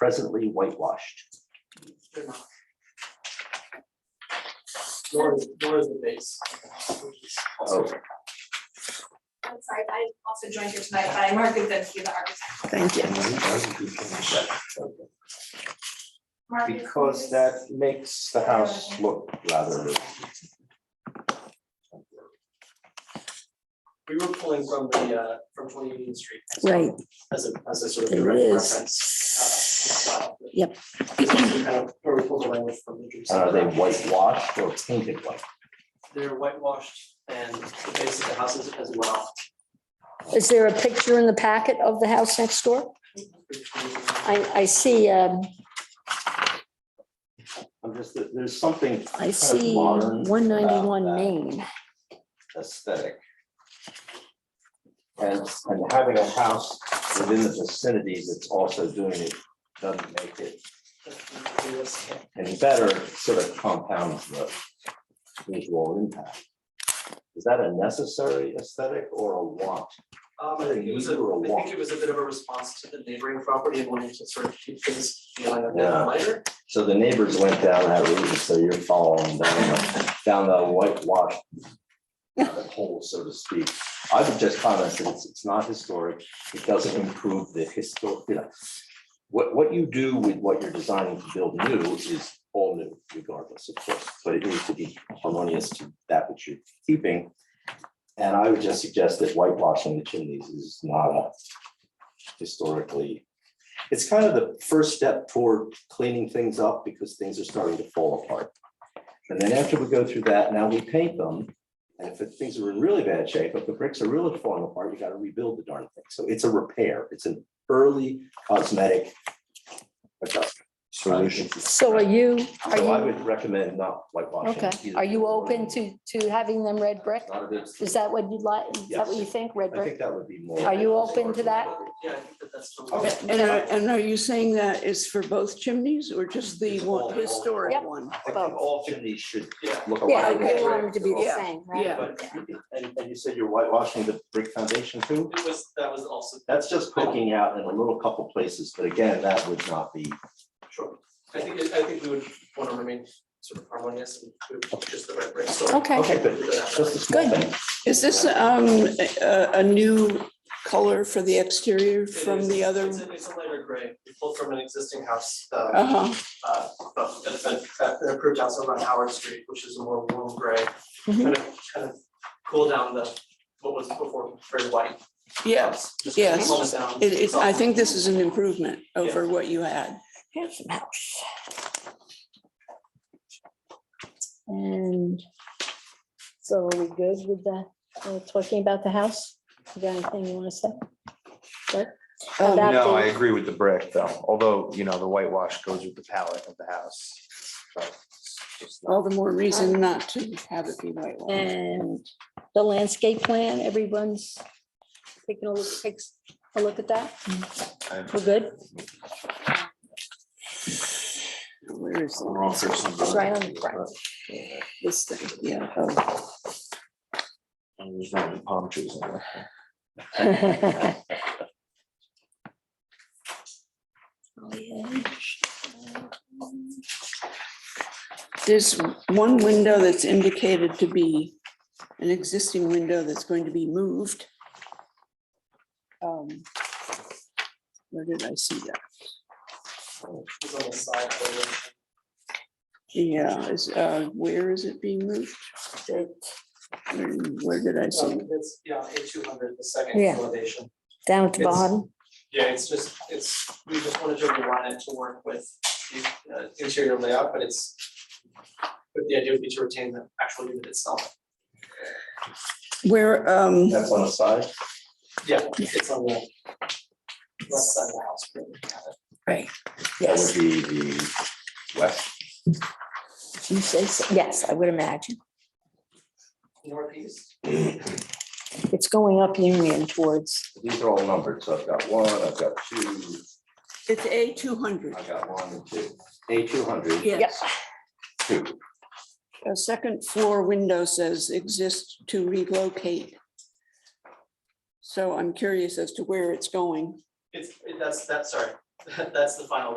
presently whitewashed. They're not. Nor is, nor is the base. which is also- Oh. I'm sorry, I also joined here tonight, but I'm Mark Gudzinski, the architect. Thank you. Mark is- Because that makes the house look rather. uh, We were pulling from the, uh, from twenty Union Street. Right, As a, as a sort of There direct it is. reference. uh, style. Yep. This is kind of Where we pulled the language from. the Dream Uh, Are they Center. whitewashed or painted white? They're whitewashed and the base of the houses as well. is there a picture in the packet of the house next door? I, I see, um, I'm just, there- there's something I see modern one ninety-one about that. Main. aesthetic. And, and having a house within the vicinity that's also doing it doesn't make it any better, it sort of compounds the visual impact. Is that a necessary aesthetic or a want? Um, I think it was a, Or a I walk. think it was a bit of a response to the neighboring property and wanting to sort of keep things feeling a bit Yeah. lighter. So the neighbors went down that route, so you're following down, the- down the whitewash rabbit hole, so to speak. I would just comment that it's, it's not historic, it doesn't improve the historic, you know. What, what you do with what you're designing to build new is all new regardless, of course, but it needs to be harmonious to that which you're keeping. And I would just suggest that whitewashing the chimneys is not a historically it's kind of the first step toward cleaning things up because things are starting to fall apart. And then after we go through that, now we paint them. And if things are in really bad shape, if the bricks are really falling apart, you gotta rebuild the darn thing. So it's a repair. It's an early cosmetic adjustment. Solution. So are you, are So I you, would recommend not whitewashing. okay, either. are you open to, to having them red brick? Not a big- Is that what you'd like, is that what you Yes. think, red I brick? think that would be more. Are you open to that? uh, Yeah, I think that that's. still- Okay. And are, and are you saying that is for both chimneys or just the All. one historic Yep. one? I think all chimneys should Yeah. look Yeah, alike. they want them to be the Yeah, same, right? yeah. But And, and you said you're whitewashing the brick foundation too? it was, that was also. That's just poking out in a little couple places, but again, that would not be, Sure. I think, it- I think we would want to remain sort of harmonious and we would just the right break, so. Okay. okay, but just a small Good. thing. Is this, um, a, a new color for the exterior It from is- the other? It's a, it's a lighter gray. We pulled from an existing house, uh, Uh-huh, uh, but that's been, that that approved house over on Howard Street, which is a more warm gray. Mhm. Kind of, kind of cool down the, what was before very white. yeah, house, just yes. calm it down. it is, I think this is an improvement over what you had. Handsome house. And so are we good with the, uh, talking about the house? You got anything you want to say? Um, Oh, That No, I being- agree with the brick though, although, you know, the whitewash goes with the palette of the house. but it's just not- All the more reason not to have it be white. wall. And the landscape plan, everyone's taking a look, takes a look at that? I'm- We're good? Where is I'm wrong for some It's right on the front. this thing? Yeah, oh, and There's not any palm trees in there. Oh, yeah. There's one window that's indicated to be an existing window that's going to be moved. Um, Where did I see that? It's on the side, but it- Yeah, is, uh, where is it being moved? Where where did I see? it? um, it's, yeah, A two hundred, the second Yeah. elevation. Down at the It's- bottom, Yeah, it's just, it's, we just wanted to align it to work with the uh, interior layout, but it's, but the idea would be to retain the actual unit itself. Where, um, That's on the side. Yeah, it's on the left side of the house. but we have it. That yes, would be the west. you say, so. yes, I would imagine. Northeast, It's going up Union towards, These are all numbered, so I've got one, I've got two, it's A two hundred. I've got one and two. A two hundred, yep, Yes, two. a second floor window says exist to relocate. So I'm curious as to where it's going. it's, that's, that's, sorry, that's the final